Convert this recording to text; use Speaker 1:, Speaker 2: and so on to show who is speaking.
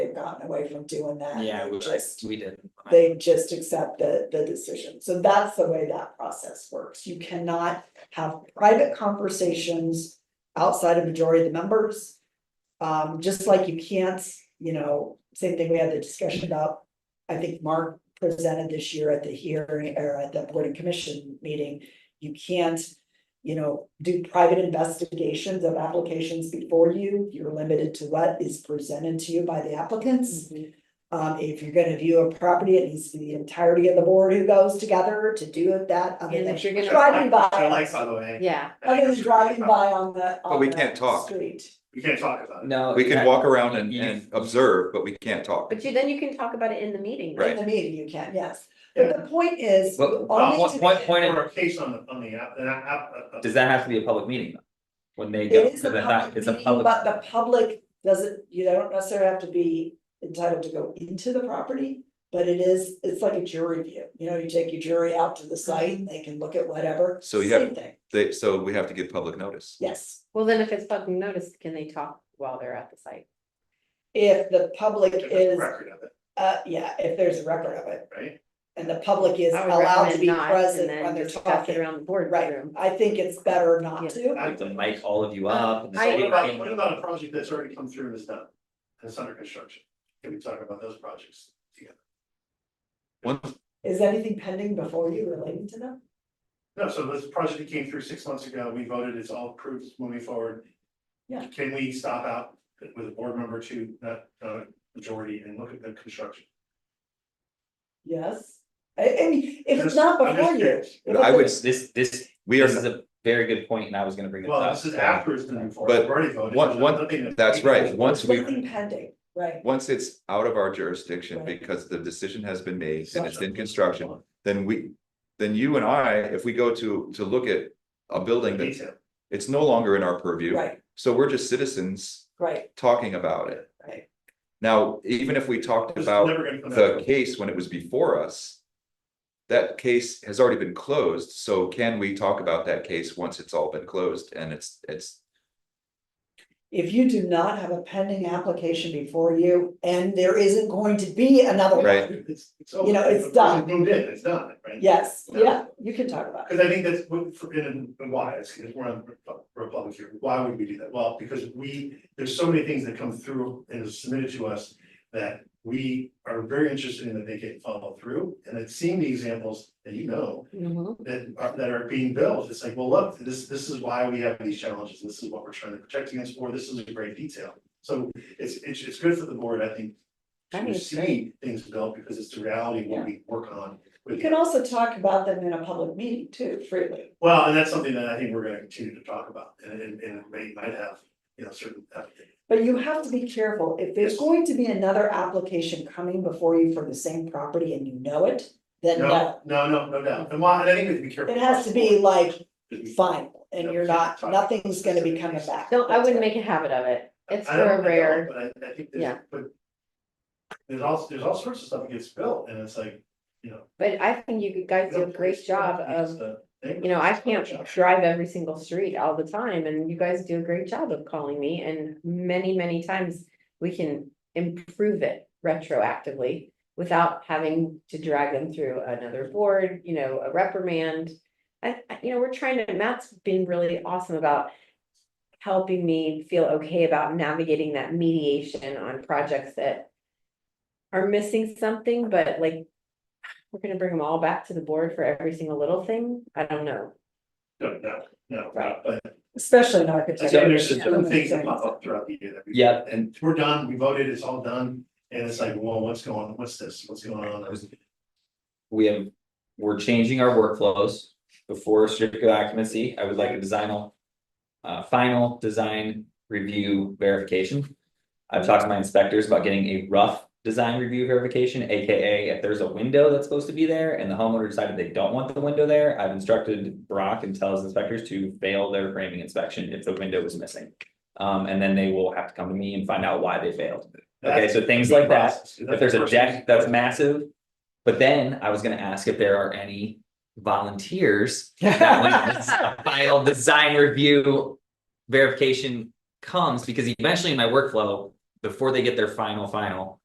Speaker 1: gotten away from doing that.
Speaker 2: Yeah,
Speaker 1: They
Speaker 2: we
Speaker 1: just-
Speaker 2: just, we didn't.
Speaker 1: They just accept the, the decision. So that's the way that process works. You cannot have private conversations outside of majority of the members. Um, just like you can't, you know, same thing we had the discussion about, I think Mark presented this year at the hearing or at the board and commission meeting. You can't, you know, do private investigations of applications before you. You're limited to what is presented to you by the applicants.
Speaker 3: Mm-hmm.
Speaker 1: Um, if you're gonna view a property, it needs to be the entirety of the board who goes together to do it that, other
Speaker 3: And
Speaker 1: than
Speaker 3: if you're gonna-
Speaker 1: driving by.
Speaker 4: I like, by the way.
Speaker 3: Yeah,
Speaker 1: Other than driving by on the,
Speaker 5: But
Speaker 1: on
Speaker 5: we can't
Speaker 1: the
Speaker 5: talk.
Speaker 1: street.
Speaker 4: You can't talk about it.
Speaker 2: No.
Speaker 5: We can
Speaker 2: yeah,
Speaker 5: walk around and,
Speaker 2: you-
Speaker 5: and observe, but we can't talk.
Speaker 3: but you, then you can talk about it in the meeting.
Speaker 5: Right.
Speaker 1: In the meeting, you can, yes. But the point is,
Speaker 2: But
Speaker 1: Only
Speaker 2: what,
Speaker 1: to
Speaker 2: what
Speaker 1: the-
Speaker 2: point,
Speaker 4: Or
Speaker 2: in-
Speaker 4: a case on the, on the app, an app- app- app-
Speaker 2: does that have to be a public meeting? though? When they go,
Speaker 1: it is
Speaker 2: because
Speaker 1: a
Speaker 2: I thought
Speaker 1: public
Speaker 2: it's a
Speaker 1: meeting,
Speaker 2: public.
Speaker 1: but the public doesn't, you don't necessarily have to be entitled to go into the property. But it is, it's like a jury view, you know, you take your jury out to the
Speaker 3: Mm-hmm.
Speaker 1: site and they can look at whatever.
Speaker 5: So you
Speaker 1: Same
Speaker 5: have-
Speaker 1: thing.
Speaker 5: They, so we have to give public notice.
Speaker 1: Yes,
Speaker 3: Well, then if it's fucking noticed, can they talk while they're at the site?
Speaker 1: if the public
Speaker 4: if there's a
Speaker 1: is,
Speaker 4: Record of it,
Speaker 1: uh, yeah, if there's a record of it
Speaker 4: right?
Speaker 1: and the public is
Speaker 3: I would
Speaker 1: allowed to
Speaker 3: recommend
Speaker 1: be
Speaker 3: not, and
Speaker 1: present
Speaker 3: then
Speaker 1: when they're
Speaker 3: discuss
Speaker 1: talking.
Speaker 3: it Around the board
Speaker 1: Right,
Speaker 3: room.
Speaker 1: I think it's better not
Speaker 3: Yeah.
Speaker 1: to.
Speaker 2: Like to mic all of you
Speaker 1: Uh,
Speaker 2: up. and
Speaker 3: I-
Speaker 2: say,
Speaker 4: What
Speaker 2: "Hey,
Speaker 4: about, what about a project that's already come through and is done, and it's under construction? Can we talk about those projects?
Speaker 5: One,
Speaker 1: Is anything pending before you relating to them?
Speaker 4: No, so this project that came through six months ago, we voted, it's all approved, it's moving forward.
Speaker 1: Yeah.
Speaker 4: Can we stop out with a board member to, not, uh, majority and look at the construction?
Speaker 1: Yes. I, I mean, if it's
Speaker 4: Just-
Speaker 1: not
Speaker 4: I'm just
Speaker 1: before you.
Speaker 4: curious.
Speaker 1: if
Speaker 5: I
Speaker 1: it's-
Speaker 5: would-
Speaker 2: This, this,
Speaker 5: we
Speaker 2: this is
Speaker 5: are,
Speaker 2: a very good point and I was gonna bring it up.
Speaker 4: Well, this is
Speaker 2: so-
Speaker 4: after it's been moved forward,
Speaker 5: But
Speaker 4: we've already voted.
Speaker 5: one-
Speaker 4: there's
Speaker 5: one-
Speaker 4: nothing that-
Speaker 5: that's right, once we-
Speaker 1: Nothing pending, right.
Speaker 5: once it's out of our jurisdiction
Speaker 1: Right.
Speaker 5: because the decision has been made and it's in construction, then we, then you and I, if we go to, to look at a building that,
Speaker 4: Detail.
Speaker 5: it's no longer in our purview.
Speaker 1: Right,
Speaker 5: So we're just citizens
Speaker 1: right,
Speaker 5: talking about it.
Speaker 1: right.
Speaker 5: Now, even if we talked
Speaker 4: It's
Speaker 5: about
Speaker 4: never gonna come back.
Speaker 5: the case when it was before us. That case has already been closed, so can we talk about that case once it's all been closed and it's, it's,
Speaker 1: If you do not have a pending application before you and there isn't going to be another
Speaker 5: Right.
Speaker 1: one,
Speaker 4: It's, it's.
Speaker 1: You know,
Speaker 4: over.
Speaker 1: it's done.
Speaker 4: Moved in, it's done, right?
Speaker 1: yes,
Speaker 4: No.
Speaker 1: yeah, you can talk about it.
Speaker 4: Cause I think that's what, for- and and why, it's, it's, we're on Repu- Republic here, why would we do that? Well, because we, there's so many things that come through and is submitted to us. That we are very interested in that they get followed through, and it's seeing the examples that you know, that are, that are being built, it's like, well, look, this, this is why we have these challenges, this is what we're trying to protect against, or this is a great detail. So it's, it's, it's good for the board, I think.
Speaker 3: I
Speaker 4: To
Speaker 3: think it's
Speaker 4: see things built, because it's the reality of what we work on.
Speaker 1: You
Speaker 4: with-
Speaker 1: can also talk about them in a public meeting too, freely.
Speaker 4: Well, and that's something that I think we're gonna continue to talk about, and, and, and it may, might have, you know, certain. uh,
Speaker 1: But you have to be careful. If there's
Speaker 4: Yes.
Speaker 1: going to be another application coming before you for the same property and you know it, then no.
Speaker 4: No, no, no, no doubt, and why, and I think we have to be careful.
Speaker 1: It has to be like
Speaker 4: Because
Speaker 1: final, and you're not, nothing's gonna be coming back.
Speaker 3: No, I wouldn't make a habit of it.
Speaker 4: we-
Speaker 3: It's
Speaker 4: I
Speaker 3: for
Speaker 4: don't- I
Speaker 3: a
Speaker 4: don't,
Speaker 3: rare,
Speaker 4: But I, I think
Speaker 3: Yeah.
Speaker 4: there's, but. There's all, there's all sorts of stuff that gets built, and it's like, you know.
Speaker 3: but I think you guys do a great job of You know, I can't drive every single street all the time and you guys do a great job of calling me and many, many times we can improve it retroactively without having to drag them through another board, you know, a reprimand. I, I- you know, we're trying to, Matt's been really awesome about helping me feel okay about navigating that mediation on projects that are missing something, but like we're gonna bring them all back to the board for every single little thing. I don't know.
Speaker 4: No, no, no, no,
Speaker 3: Right.
Speaker 4: but
Speaker 1: Especially in
Speaker 4: I
Speaker 1: architecture.
Speaker 4: think there's just certain things that pop up throughout the year that we.
Speaker 2: Yeah.
Speaker 4: And we're done, we voted, it's all done, and it's like, well, what's going, on? what's this, what's going on?
Speaker 2: we have, we're changing our workflows before certificate of occupancy. I would like a designal. Uh, final design review verification. I've talked to my inspectors about getting a rough design review verification, AKA if there's a window that's supposed to be there and the homeowner decided they don't want the window there. I've instructed Brock and tells inspectors to fail their framing inspection if the window is missing. Um, and then they will have to come to me and find out why they failed. Okay, so things like that. If there's a deck that's massive. But then I was gonna ask if there are any volunteers. that when this Final design review verification comes, because eventually in my workflow, before they get their final, final.